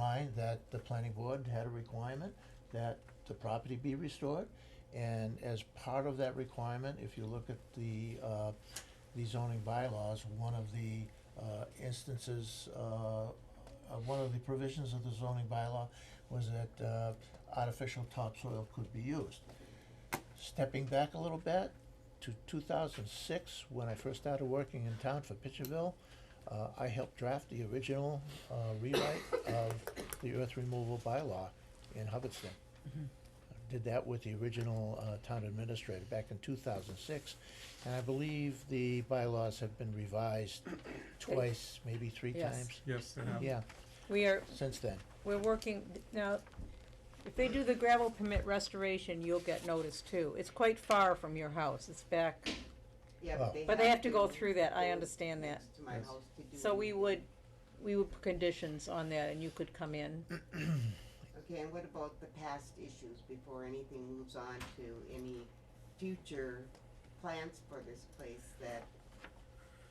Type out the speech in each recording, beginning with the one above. determined that the planning board had a requirement that the property be restored. And as part of that requirement, if you look at the, uh, the zoning bylaws, one of the, uh, instances, uh, uh, one of the provisions of the zoning bylaw was that, uh, artificial topsoil could be used. Stepping back a little bit to two thousand six, when I first started working in town for Pitcherville, uh, I helped draft the original, uh, rewrite of the earth removal bylaw in Hubbardston. Did that with the original, uh, town administrator back in two thousand six, and I believe the bylaws have been revised twice, maybe three Yes. times. Yes, they have. Yeah, We are, since then. we're working, now, if they do the gravel permit restoration, you'll get notice too. It's quite far from your house, it's back, Yeah, Oh. but they have to. but they have to go through that, I go understand that. next to my Yes. house to do So we it. would, we would put conditions on that and you could come in. Okay, and what about the past issues before anything moves on to any future plans for this place that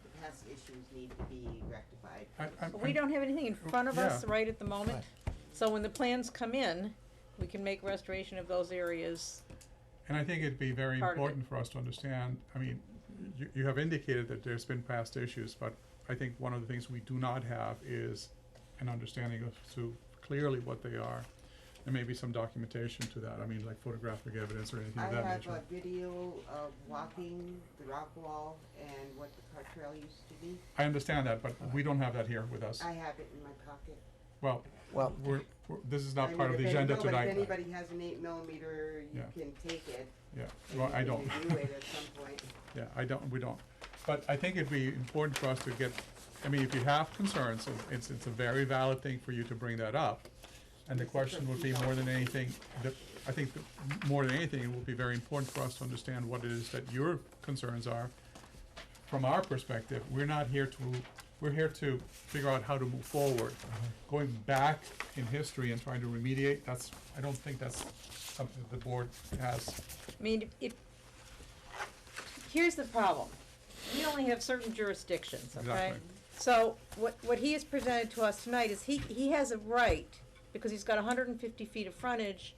the past issues need to be rectified? I, I'm, But We I'm, don't have anything in front of us Mm-hmm. Yeah. right at the moment, Right. so when the plans come in, we can make restoration of those areas. and I think it'd be very Part of it. important for us to understand, I mean, you, you have indicated that there's been past issues, but I think one of the things we do not have is an understanding of to clearly what they are, and maybe some documentation to that, I mean, like photographic evidence or anything I of that have a nature. video of walking the rock wall and what the car trail used to be. I understand that, but we don't have that here with us. I have it in my pocket. Well, Well, we're, we're, this is I not mean, part of if the any- agenda no, but tonight. If anybody has an eight millimeter, you Yeah. can take it. Yeah, and well, you I can don't. Review it at some point. Yeah, I don't, we don't. But I think it'd be important for us to get, I mean, if you have concerns, and it's, it's a very valid thing for you to bring that up. And the question would be more than anything, the, I think the- more than anything, it will be very important for us to understand what it is that your concerns are. From our perspective, we're not here to, we're here to figure out how to move forward. Going back in history and trying to remediate, that's, I don't think that's something the board has. I mean, if- if, here's the problem, we only have certain jurisdictions, okay? Exactly. So, what, what he has presented to us tonight is he, he has a right, because he's got hundred and fifty feet of frontage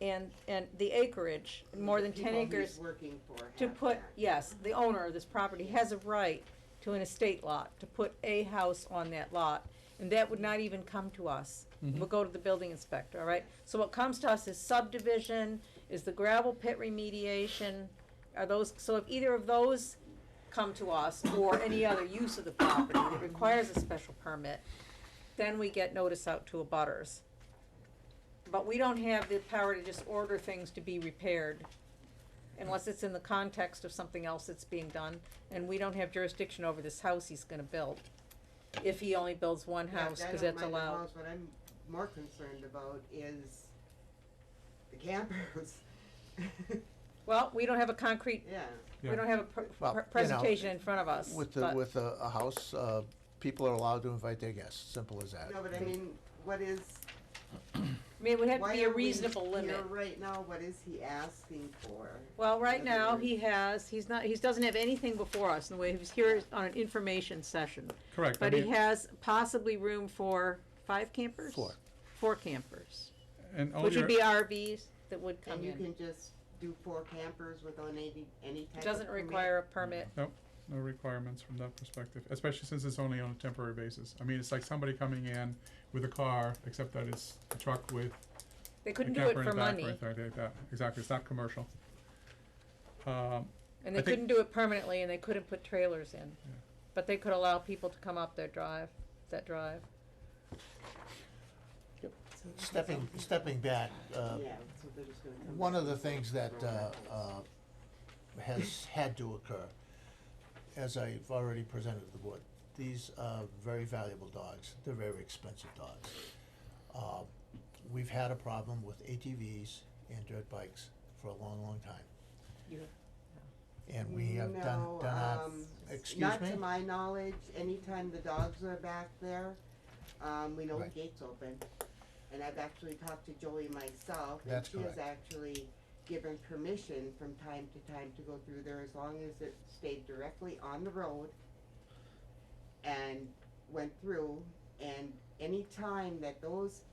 and, and the acreage, more The than ten people he's acres, working for to have put, that. yes, the owner of this property has a right to an estate lot, to put a house on that lot, and that would not even come to us. It would go to the building inspector, all right? So what comes to us is subdivision, is the gravel pit remediation, are those, so if either of those come to us, or any other use of the property that requires a special permit, then we get notice out to abutters. But we don't have the power to just order things to be repaired unless it's in the context of something else that's being done, and we don't have jurisdiction over this house he's gonna build. If he only builds one Yeah, house, I cause don't that's mind the allowed. house. What I'm more concerned about is the campers. Well, we don't have a concrete, Yeah, we Yeah. don't have a pr- Well, pr- you know, presentation in front of us, With the, but with a, a house, uh, people are allowed to invite their guests, simple as that. no, but I mean, what is, I mean, it would have to why be a are we reasonable limit. here right now? What is he asking for? Well, right In other now, words- he has, he's not, he doesn't have anything before us in the way, he was here on an information session. Correct. I But he mean- has possibly room for five campers? Four. Four campers, And all which would your, be RVs that would come And you in. can just do four campers without any, any type It of. doesn't permit? require a permit. no requirements from that perspective, especially since it's only on a temporary basis. I mean, it's like somebody coming in with a car, except that it's a truck with They a couldn't do it camper in for the back or money, anything like that. Exactly, it's not commercial. Um, and I they think- couldn't do it permanently, and they couldn't put trailers in. But they could allow people to come up their drive, that drive. Stepping, stepping back, uh, Yeah, so they're just gonna come One back of the and things that throw uh, it out. uh, has had to occur, as I've already presented to the board, these are very valuable dogs, they're very expensive dogs. Uh, We've had a problem with ATVs and dirt bikes for a long, long time. You- And we have done, No, done our, um, excuse me? Not to my knowledge, anytime the dogs are back there, um, we know the Right. gates open. And I've actually talked to Joey myself, and That's she has correct. actually given permission from time to time to go through there as long as it stayed directly on the road. And went through, and any time that those